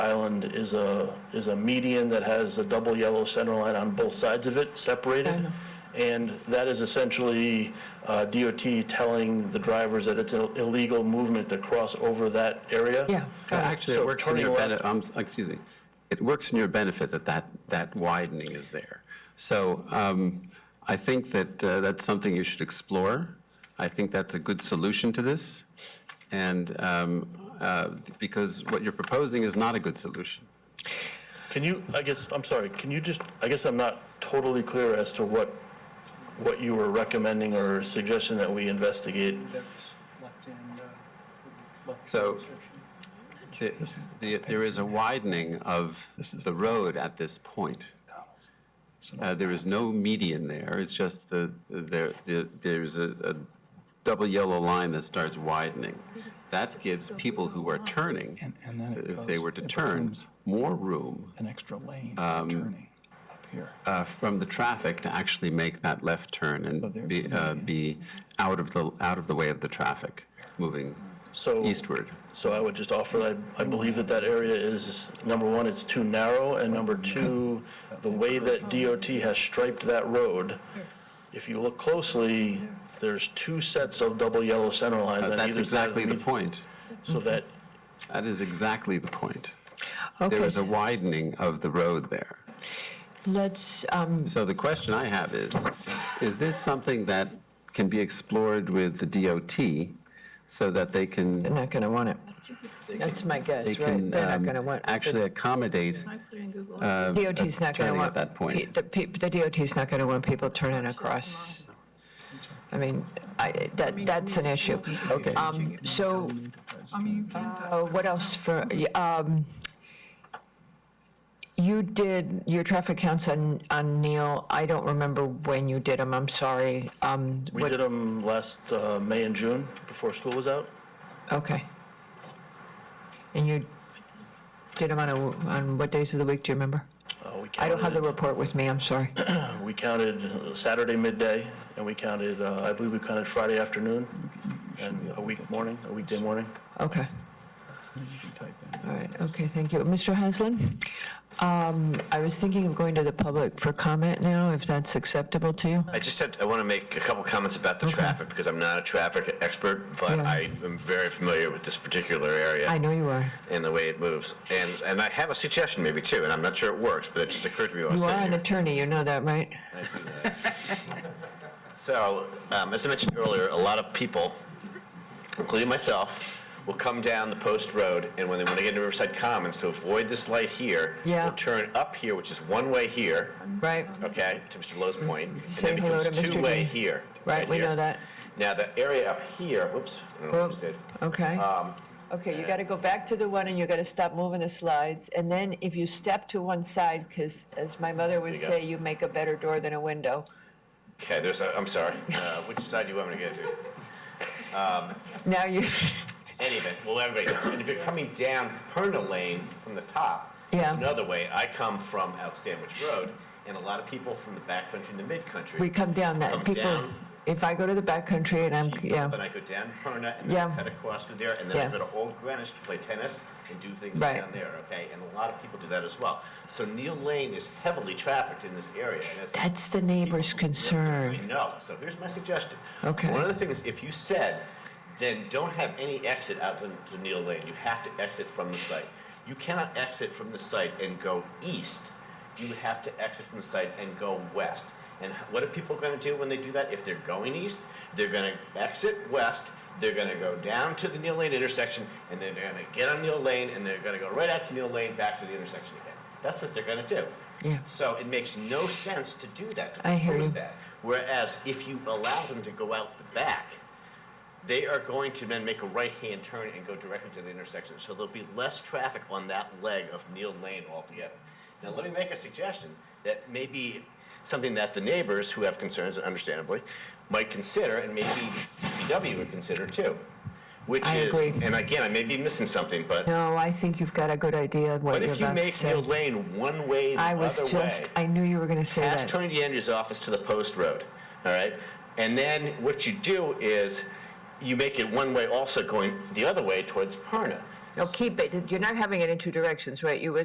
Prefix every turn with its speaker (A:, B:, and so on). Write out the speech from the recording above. A: Island is a, is a median that has a double yellow center line on both sides of it, separated. And that is essentially uh, DOT telling the drivers that it's an illegal movement to cross over that area.
B: Yeah, got it.
C: Actually,
A: So
C: it works in your
A: turning left-
C: benefit, um, excuse me, it works in your benefit that that, that widening is there. So, um, I think that, uh, that's something you should explore. I think that's a good solution to this. And, um, uh, because what you're proposing is not a good solution.
A: Can you, I guess, I'm sorry, can you just, I guess I'm not totally clear as to what, what you were recommending or suggesting that we investigate.
D: that was left in, uh, left in
C: So-
D: the restriction.
C: There- the- There is a widening of the road at this point. Uh, There is no median there, it's just the, there, the- there's a, a double yellow line that starts widening. That gives people who are turning, uh,
E: And, and then it
C: if
E: goes.
C: they were to
E: it
C: turn, um,
E: becomes
C: more room
E: An extra lane for turning up here.
C: uh, from the traffic to actually make that left turn
E: But there's
C: and be,
E: the
C: uh,
E: median.
C: be out of the, out of the way of the traffic, moving
A: So.
C: eastward.
A: So I would just offer, I, I believe that that area is, number one, it's too narrow, and number two, the way that DOT has striped that road, if you look closely, there's two sets of double yellow center lines
C: Uh,
A: on
C: That's
A: either side of the
C: exactly the
A: median.
C: point.
A: So that,
C: That is exactly the point. There
B: Okay,
C: is a widening of the road there.
B: let's, um,
C: So the question I have is, is this something that can be explored with the DOT so that they
B: they're
C: can,
B: not going to want it. That's my
C: they
B: guess, right?
C: can
B: They're not
C: um,
B: going to want.
C: actually accommodate?
B: DOT's not going to
C: turning at
B: want.
C: that point.
B: The pe- the DOT's not going to want people turning across. I mean, I, that, that's an issue.
C: Okay.
B: Um, So, uh, what else for, um, you did your traffic counts on, on Neil. I don't remember when you did them, I'm sorry. Um,
A: we
B: what-
A: did them last, uh, May and June, before school was out.
B: Okay. And you did them on a, on what days of the week, do you remember?
A: Uh, we
B: I don't have the
A: counted-
B: report with me, I'm sorry.
A: We counted Saturday midday, and we counted, uh, I believe we counted Friday afternoon, and a week morning, a weekday morning.
B: Okay,
E: You can type in.
B: all right, okay, thank you. Mr. Haslin? Um, I was thinking of going to the public for comment now, if that's acceptable to you?
F: I just had, I want to make a couple comments about the traffic, because I'm not a traffic expert, but
B: Yeah.
F: I am very familiar with this particular
B: I
F: area
B: know you are.
F: and the way it moves. And, and I have a suggestion maybe too, and I'm not sure it works, but it just occurred to me while I was
B: You are an
F: sitting here.
B: attorney, you know that, right?
F: So, um, as I mentioned earlier, a lot of people, including myself, will come down the post road, and when they want to get into Riverside Commons, to avoid this light here,
B: Yeah.
F: will turn up here, which is one way here,
B: Right,
F: okay, to Mr. Lowe's point, and
B: Say
F: then
B: hello to
F: becomes
B: Mr.
F: two-way
B: Dean.
F: here.
B: right, we
F: here.
B: know that.
F: Now, the area up here, whoops, I don't know
B: Well,
F: what I did.
B: Okay.
F: Um,
B: Okay, you got to go back to the one, and you got to stop moving the slides. And then if you step to one side, because as my mother would
F: You got
B: say,
F: it.
B: you make a better door than a window.
F: Okay, there's a, I'm sorry. Uh, which side do you want me to get to?
B: Now you,
F: Anyway, well, everybody, knows. and if you're coming down Perna Lane from the top,
B: Yeah.
F: there's another way. I come from out Stanwich Road, and a lot of people from the back country and the mid country.
B: we come down that,
F: Come
B: people,
F: down.
B: if I go to the backcountry and I'm,
F: Then
B: yeah,
F: I go down Perna and
B: Yeah.
F: then I cut across through there, and then
B: Yeah.
F: I go to Old Greenwich to play tennis and do things
B: Right.
F: down there, okay? And a lot of people do that as well. So Neil Lane is heavily trafficked in this area. And it's
B: that's the neighbor's concern.
F: I know, so here's my suggestion.
B: Okay.
F: One of the things, if you said, then don't have any exit out to to Neil Lane, you have to exit from the site. You cannot exit from the site and go east, you have to exit from the site and go west. And what are people gonna do when they do that? If they're going east, they're gonna exit west, they're gonna go down to the Neil Lane intersection, and then they're gonna get on Neil Lane, and they're gonna go right out to Neil Lane, back to the intersection again. That's what they're gonna do.
B: Yeah.
F: So it makes no sense to do that, to
B: I hear
F: propose
B: you.
F: that. Whereas if you allow them to go out the back, they are going to then make a right-hand turn and go directly to the intersection. So there'll be less traffic on that leg of Neil Lane altogether. Now, let me make a suggestion that may be something that the neighbors who have concerns, understandably, might consider, and maybe DPW would consider too. Which
B: I
F: is,
B: agree.
F: and again, I may be missing something, but,
B: No, I think you've got a good idea of what
F: but
B: you're
F: if you
B: about to
F: make
B: say.
F: Neil Lane one way, the
B: I
F: other way.
B: was just, I knew you were going to say
F: Pass
B: that.
F: Tony DeAndrea's office to the post road, all right? And then what you do is you make it one way also going the other way towards Perna.
B: No, keep it, you're not having it in two directions, right? You would